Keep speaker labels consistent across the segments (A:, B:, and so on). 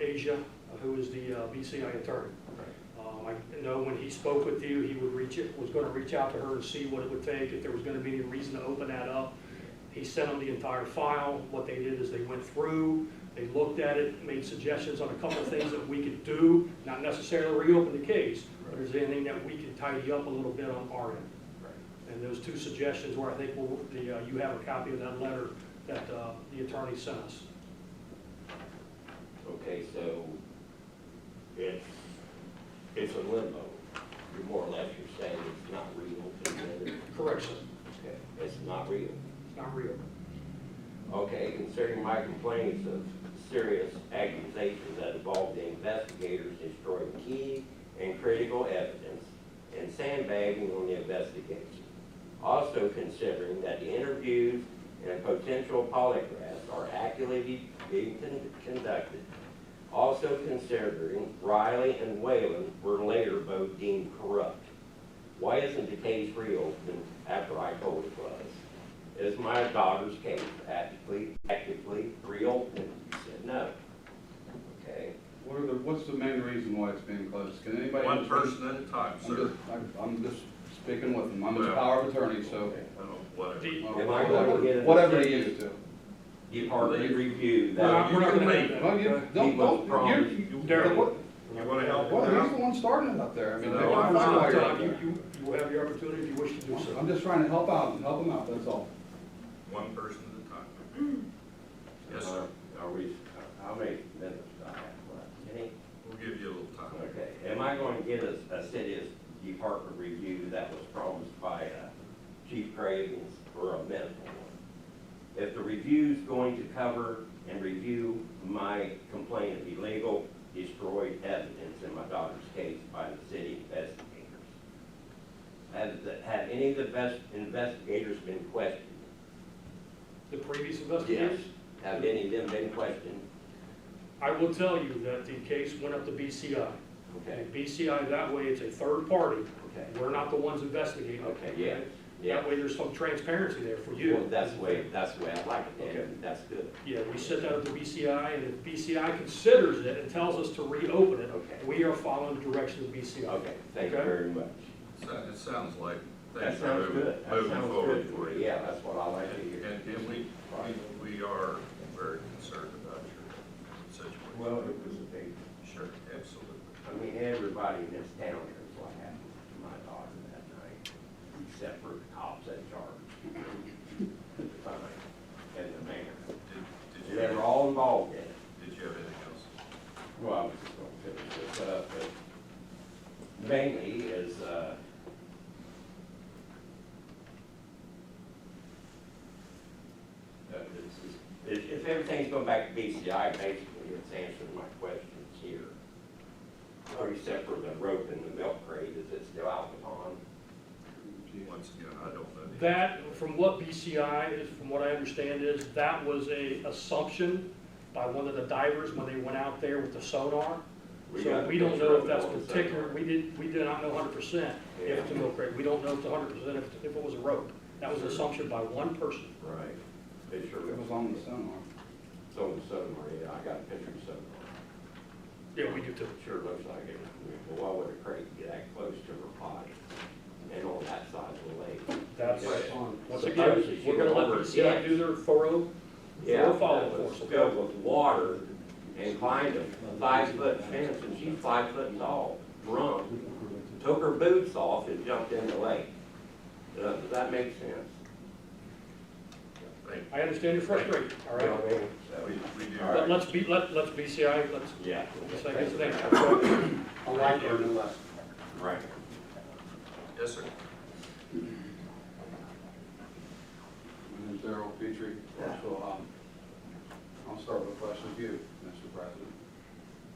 A: Asia, who is the uh, BCI attorney. Um, I know when he spoke with you, he would reach, it- was gonna reach out to her and see what it would take, if there was gonna be any reason to open that up. He sent them the entire file. What they did is they went through, they looked at it, made suggestions on a couple of things that we could do, not necessarily reopen the case, but is there anything that we can tidy up a little bit on our end? And those two suggestions were, I think, were the, uh, you have a copy of that letter that uh, the attorney sent us.
B: Okay, so it's, it's a limbo. You're more or less, you're saying it's not real, it's whether-
A: Correction,
B: okay, it's not real.
A: it's not real.
B: Okay, considering my complaints of serious accusations that involved the investigators destroying key and critical evidence and sandbagging on the investigation. Also considering that the interviews and a potential polygraphs are accurately being con- conducted. Also considering Riley and Whalen were later both deemed corrupt. Why isn't the case reopened after I told it was? is my daughter's case actively, actively reopened? He said, no. Okay,
C: What are the, what's the main reason why it's being closed? Can anybody?
D: One person at a time,
C: I'm
D: sir.
C: just, I'm- I'm just speaking with them. I'm his
D: Well.
C: power of attorney, so. uh,
D: I don't know, whatever.
A: The-
B: Am I gonna get it?
C: Whatever they used to.
B: you've hardly reviewed
A: Well,
B: that.
A: we're not
D: You
A: gonna
D: can
A: have
C: Well, you,
B: He
C: don't,
B: was
C: don't,
D: promised.
C: you,
D: You-
A: Darryl.
C: what,
D: You wanna help
C: well,
D: him
C: he's the
D: out?
C: one starting it up there. I mean,
D: No,
C: they're
D: I'm
C: the ones
D: not.
C: that are
A: Tom,
C: out
A: you,
C: there.
A: you, you will have your opportunity if you wish to do so.
C: I'm just trying to help out and help him out, that's all.
D: One person at a time. Yes, sir.
B: Uh, Are we, uh, how many minutes do I have left? Any?
D: We'll give you a little time.
B: Okay, am I going to get a, a city's department review that was promised by uh, Chief Cravens or a medical one? If the review's going to cover and review my complaint of illegal destroyed evidence in my daughter's case by the city investigators, have, the- have any of the best investigators been questioned?
A: The previous investigation?
B: Have any of them been questioned?
A: I will tell you that the case went up to BCI.
B: Okay,
A: And BCI, that way it's a third party.
B: okay,
A: We're not the ones investigating.
B: okay, yeah, yeah.
A: That way there's some transparency there for
B: Well,
A: you.
B: that's the way, that's the way I like it,
A: Okay.
B: and that's good.
A: Yeah, we set that up to BCI, and if BCI considers it and tells us to reopen it,
B: Okay.
A: we are following the direction of BCI.
B: Okay, thank you
A: Okay.
B: very much.
D: So- It sounds like
B: That
D: things are
B: sounds
D: moving,
B: good. That
D: moving
B: sounds good
D: forward
B: for
D: for
B: me.
D: you.
B: Yeah, that's what I like to
D: And,
B: hear.
D: and- and we, we- we are very concerned about your situation.
B: Well, it was a big,
D: Sure, absolutely.
B: I mean, everybody in this town knows what happened to my daughter that night, except for the cops in charge. at the time, And the mayor.
D: Did, did you,
B: They were
D: have-
B: all involved in it.
D: did you have anything else?
B: Well, I was just going to finish this up, but mainly is, uh, uh, it's- it's- if, if everything's going back to BCI, basically, it's answering my questions here. Or except for the rope and the milk crate, is it still out upon?
D: Once again, I don't know. the-
A: That, from what BCI is, from what I understand is, that was a assumption by one of the divers when they went out there with the sonar. So we don't know if that's particular, we did, we do not know hundred percent if it's a milk crate. We don't know if it's hundred percent if, if it was a rope. That was an assumption by one person.
B: Right. Picture
C: It
B: of,
C: was on the sonar.
B: so and so, Maria, I got a picture of someone.
A: Yeah, we do too.
B: Sure looks like it. Well, why would a crate get that close to her body and on that side of the lake?
A: That's,
B: Right.
A: once again, we're gonna let BCI do their thorough,
B: Yeah,
A: We'll follow
B: that was
A: it.
B: Filled with water and climbed a five-foot fence and she's five foot tall, drunk, took her boots off and jumped in the lake. Uh, Does that make sense?
D: Thank
A: I understand your frustration, all
B: You know
A: right?
B: what I mean?
D: you.
B: So,
D: We, we do.
B: All
A: But let's be, let, let's BCI, let's,
B: Yeah.
A: let's, I guess, next.
B: I like your new lesson. Right.
D: Yes, sir.
C: My name's Darrell Petrie. So, um, I'll start with a question of you, Mr. President.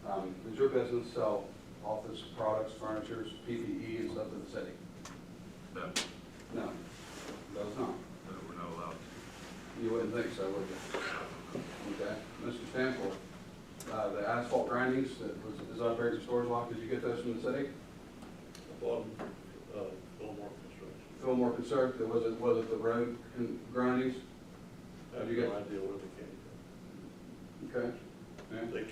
C: Um, does your business sell office products, furnitures, PPE and stuff to the city?
D: No, no,
C: No, does not.
D: we're not allowed
C: You wouldn't think so, would you? Okay, Mr. Stanford, uh, the asphalt grindings that was, is operated at the storage lot, did you get those from the city?
E: Bottom, uh, Belmar Construction.
C: Fillmore Conserv, was it, was it the road con- grindings?
E: I have
C: You got-
E: no idea where they came from.
C: Okay. Yeah.
E: They